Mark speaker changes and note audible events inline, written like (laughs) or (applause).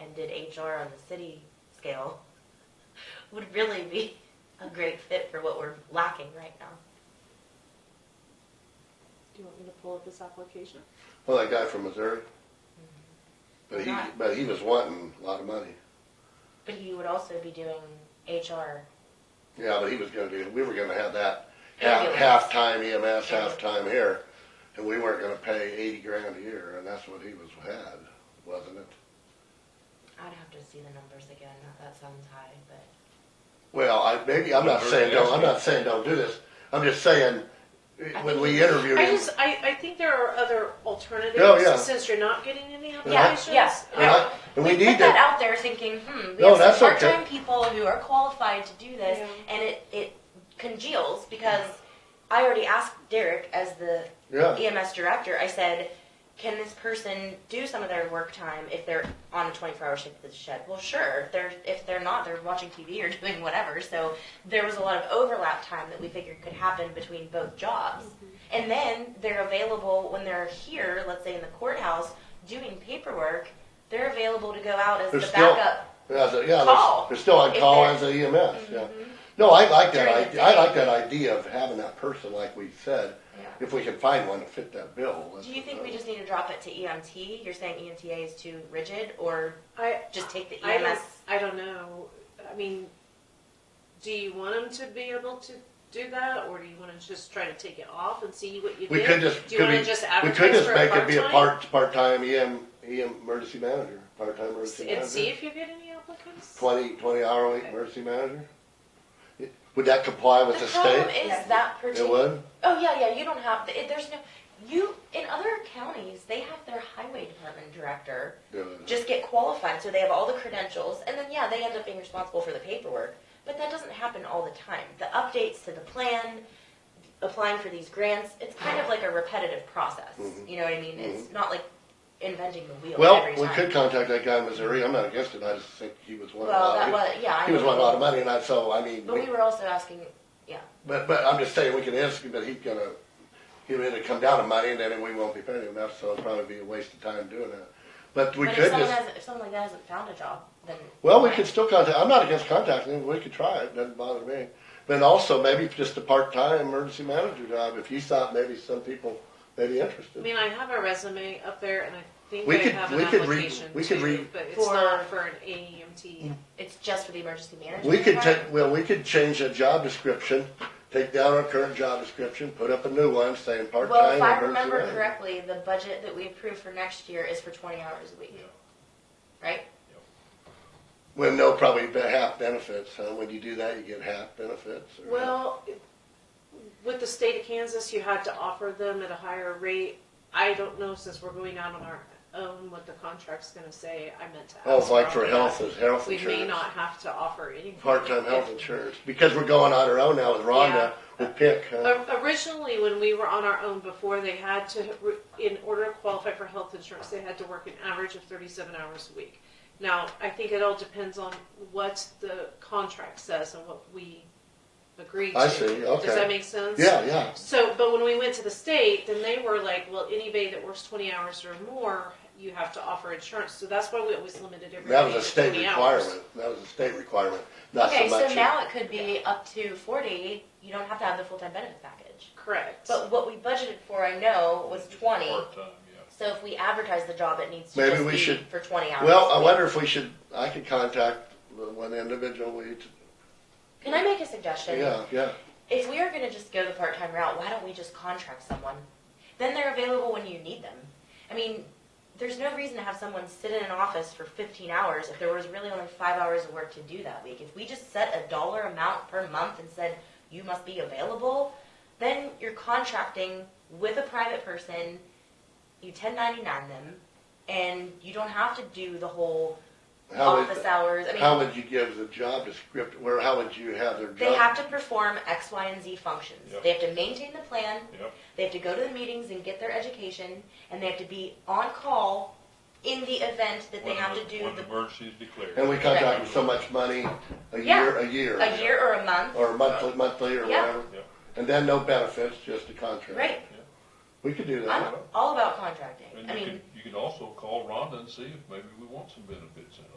Speaker 1: and did HR on the city scale (laughs) would really be a great fit for what we're lacking right now.
Speaker 2: Do you want me to pull up his application?
Speaker 3: Well, that guy from Missouri. But he,
Speaker 1: Right.
Speaker 3: but he was wanting a lot of money.
Speaker 1: But he would also be doing HR.
Speaker 3: Yeah, but he was gonna do, we were gonna have that half,
Speaker 1: Ambulance.
Speaker 3: half-time EMS, half-time here, and we weren't gonna pay eighty grand a year, and that's what he was, had, wasn't it?
Speaker 1: I'd have to see the numbers again. Not that sounds high, but
Speaker 3: Well, I, maybe, I'm not
Speaker 4: Missouri
Speaker 3: saying, don't, I'm
Speaker 4: asking.
Speaker 3: not saying don't do this, I'm just saying,
Speaker 1: I
Speaker 3: when
Speaker 1: think
Speaker 3: we
Speaker 1: he-
Speaker 3: interviewed
Speaker 2: I
Speaker 3: him,
Speaker 2: just, I, I think there are other alternatives.
Speaker 3: Oh, yeah.
Speaker 2: Since you're not getting any applications.
Speaker 1: Yeah, yeah.
Speaker 3: uh-huh, and we
Speaker 1: we put
Speaker 3: need
Speaker 1: that
Speaker 3: to,
Speaker 1: out there thinking, hmm, we have
Speaker 3: No,
Speaker 1: some
Speaker 3: that's okay.
Speaker 1: part-time people who are qualified to do this,
Speaker 2: Yeah.
Speaker 1: and it, it congeals because I already asked Derek as the
Speaker 3: yeah,
Speaker 1: EMS E director. I said, can this person do some of their work time if they're on a 24-hour shift at the shed? Well, sure. If they're if they're not, they're watching TV or (laughs) doing whatever. So there was a lot of overlap time that we figured could happen between both jobs. And then they're available when they're here, let's say in the courthouse, doing paperwork. They're available to go out as
Speaker 3: They're
Speaker 1: the
Speaker 3: still-
Speaker 1: backup.
Speaker 3: yeah, they're- yeah,
Speaker 1: Call.
Speaker 3: they're- they're still on
Speaker 1: If
Speaker 3: call
Speaker 1: they're- Mm-hmm.
Speaker 3: as a EMS, yeah. No, I like
Speaker 1: During
Speaker 3: that,
Speaker 1: the
Speaker 3: idea. I
Speaker 1: day.
Speaker 3: like that idea of having that person, like we said,
Speaker 1: Yeah.
Speaker 3: if we can find one to fit that bill. let's-
Speaker 1: Do you think we just need to drop it to EMT? You're saying E EMTA is too rigid, or
Speaker 2: I,
Speaker 1: just take the E
Speaker 2: I don't,
Speaker 1: EMS?
Speaker 2: I don't know. I mean, do you want him to be able to do that, or do you want to just try to take it off and see what you
Speaker 3: We
Speaker 2: get?
Speaker 3: could just,
Speaker 2: do you
Speaker 3: could
Speaker 2: want
Speaker 3: we,
Speaker 2: to just
Speaker 3: we
Speaker 2: advertise
Speaker 3: could just
Speaker 2: for
Speaker 3: make
Speaker 2: a
Speaker 3: it be a
Speaker 2: part-time?
Speaker 3: part, part-time E EM, EM emergency manager, part-time emergency
Speaker 2: and see
Speaker 3: manager.
Speaker 2: if you get any applicants.
Speaker 3: Twenty, twenty hour a week
Speaker 2: Okay.
Speaker 3: emergency manager? It- Would that comply with the
Speaker 1: problem
Speaker 3: state?
Speaker 1: is
Speaker 5: Yeah.
Speaker 1: that
Speaker 3: It
Speaker 1: particular.
Speaker 3: would?
Speaker 1: Oh yeah, yeah. You don't have. it- There's no. You in other counties, they have their highway department director
Speaker 3: Yeah.
Speaker 1: just get qualified, so they have all the credentials, and then yeah, they end up being responsible for the paperwork. But that doesn't happen all the time. The updates to the plan, applying for these grants, it's kind of like a repetitive process.
Speaker 3: Mhm.
Speaker 1: You know what I mean? It's not like inventing the wheel
Speaker 3: Well,
Speaker 1: every
Speaker 3: we
Speaker 1: time.
Speaker 3: could contact that guy in Missouri, I'm not against it, I just think he was one of
Speaker 1: well, that
Speaker 3: the,
Speaker 1: was yeah. I
Speaker 3: he was
Speaker 1: know.
Speaker 3: one of a lot of money, and I, so, I mean,
Speaker 1: But
Speaker 3: we-
Speaker 1: we were also asking.
Speaker 3: but, but I'm just saying, we can ask him, but he's gonna, he'll either come down to money, and then we won't be paying him enough, so it'll probably be a waste of time doing that. But we
Speaker 1: but
Speaker 3: could
Speaker 1: if someone,
Speaker 3: just.
Speaker 1: has, if someone like that hasn't found a job, then
Speaker 3: Well, we could still contact, I'm not against contacting him, we could try it, doesn't bother me. But also maybe just a part-time emergency manager job, if you thought maybe some people may be
Speaker 2: I
Speaker 3: interested.
Speaker 2: mean, I have a resume up there, and I think
Speaker 3: We
Speaker 2: I
Speaker 3: could-
Speaker 2: have
Speaker 3: we
Speaker 2: an
Speaker 3: could re-
Speaker 2: application
Speaker 3: we could
Speaker 2: too,
Speaker 3: re-
Speaker 2: but it's
Speaker 1: For-
Speaker 2: not for an E AEMT.
Speaker 1: it's just for the emergency management.
Speaker 3: We could
Speaker 1: department?
Speaker 3: take, well, we could change that job description, take down our current job description, put up a new one saying part-time
Speaker 1: Well, if
Speaker 3: emergency
Speaker 1: I remember
Speaker 3: manager.
Speaker 1: correctly, the budget that we approved for next year is for twenty hours a week. Right?
Speaker 3: With no probably be- half benefits, huh? When you do that, you get half benefits. or-
Speaker 2: Well, with the state of Kansas, you had to offer them at a higher rate. I don't know, since we're going out on our own, what the contract's gonna say. I meant to ask.
Speaker 3: Oh, it's like for
Speaker 2: Rob
Speaker 3: health,
Speaker 2: that.
Speaker 3: is health
Speaker 2: We
Speaker 3: insurance.
Speaker 2: may not have to offer anything.
Speaker 3: Part-time health insurance, because we're going on our own now with Rhonda, with PIC, huh?
Speaker 2: O- Originally, when we were on our own before, they had to, re- in order to qualify for health insurance, they had to work an average of thirty-seven hours a week. Now, I think it all depends on what the contract says and what we agree to.
Speaker 3: I see, okay.
Speaker 2: Does that make sense?
Speaker 3: Yeah, yeah.
Speaker 2: So, but when we went to the state, then they were like, well, anybody that works twenty hours or more, you have to offer insurance. So that's why we always limited
Speaker 3: That was
Speaker 2: everybody
Speaker 3: a
Speaker 2: to
Speaker 3: state
Speaker 2: twenty hours.
Speaker 3: requirement. That was a state requirement, not so
Speaker 1: Okay,
Speaker 3: much.
Speaker 1: so now it could be up to forty, you don't have to have the full-time benefits package.
Speaker 2: Correct.
Speaker 1: But what we budgeted for, I know, was twenty,
Speaker 4: Part-time, yeah.
Speaker 1: so if we advertise the job, it needs to
Speaker 3: Maybe
Speaker 1: just
Speaker 3: we
Speaker 1: be
Speaker 3: should-
Speaker 1: for twenty hours.
Speaker 3: well, um,
Speaker 1: a
Speaker 3: I
Speaker 1: week.
Speaker 3: wonder if we should. I could contact the one individual. We,
Speaker 1: Can I make a suggestion?
Speaker 3: yeah, yeah.
Speaker 1: If we are gonna just go the part-time route, why don't we just contract someone? Then they're available when you need them. I mean, there's no reason to have someone sit in an office for fifteen hours if there was really only five hours of work to do that week. If we just set a dollar amount per month and said, you must be available, then you're contracting with a private person, you ten ninety-nine them, and you don't have to do the whole
Speaker 3: How would,
Speaker 1: office hours. I mean,
Speaker 3: how would you give the job description? Where how would you have their job?
Speaker 1: They have to perform X, Y, and Z functions.
Speaker 4: Yep.
Speaker 1: They have to maintain the plan.
Speaker 4: Yep.
Speaker 1: They have to go to the meetings and get their education, and they have to be on call in the event that they
Speaker 4: When
Speaker 1: have
Speaker 4: the-
Speaker 1: to do
Speaker 4: When the
Speaker 1: the,
Speaker 4: emergency is declared.
Speaker 3: and we
Speaker 1: Right.
Speaker 3: contract with so much money a
Speaker 1: Yeah.
Speaker 3: year, a year,
Speaker 1: a year or a month.
Speaker 3: or monthly, monthly, or
Speaker 1: Yeah.
Speaker 3: whatever,
Speaker 4: Yeah.
Speaker 3: and then no benefits, just a contract.
Speaker 1: Right.
Speaker 3: We could do that.
Speaker 1: I'm all about contracting.
Speaker 4: And
Speaker 1: I
Speaker 4: you
Speaker 1: mean,
Speaker 4: can, you can also call Rhonda and see if maybe we want some benefits in it.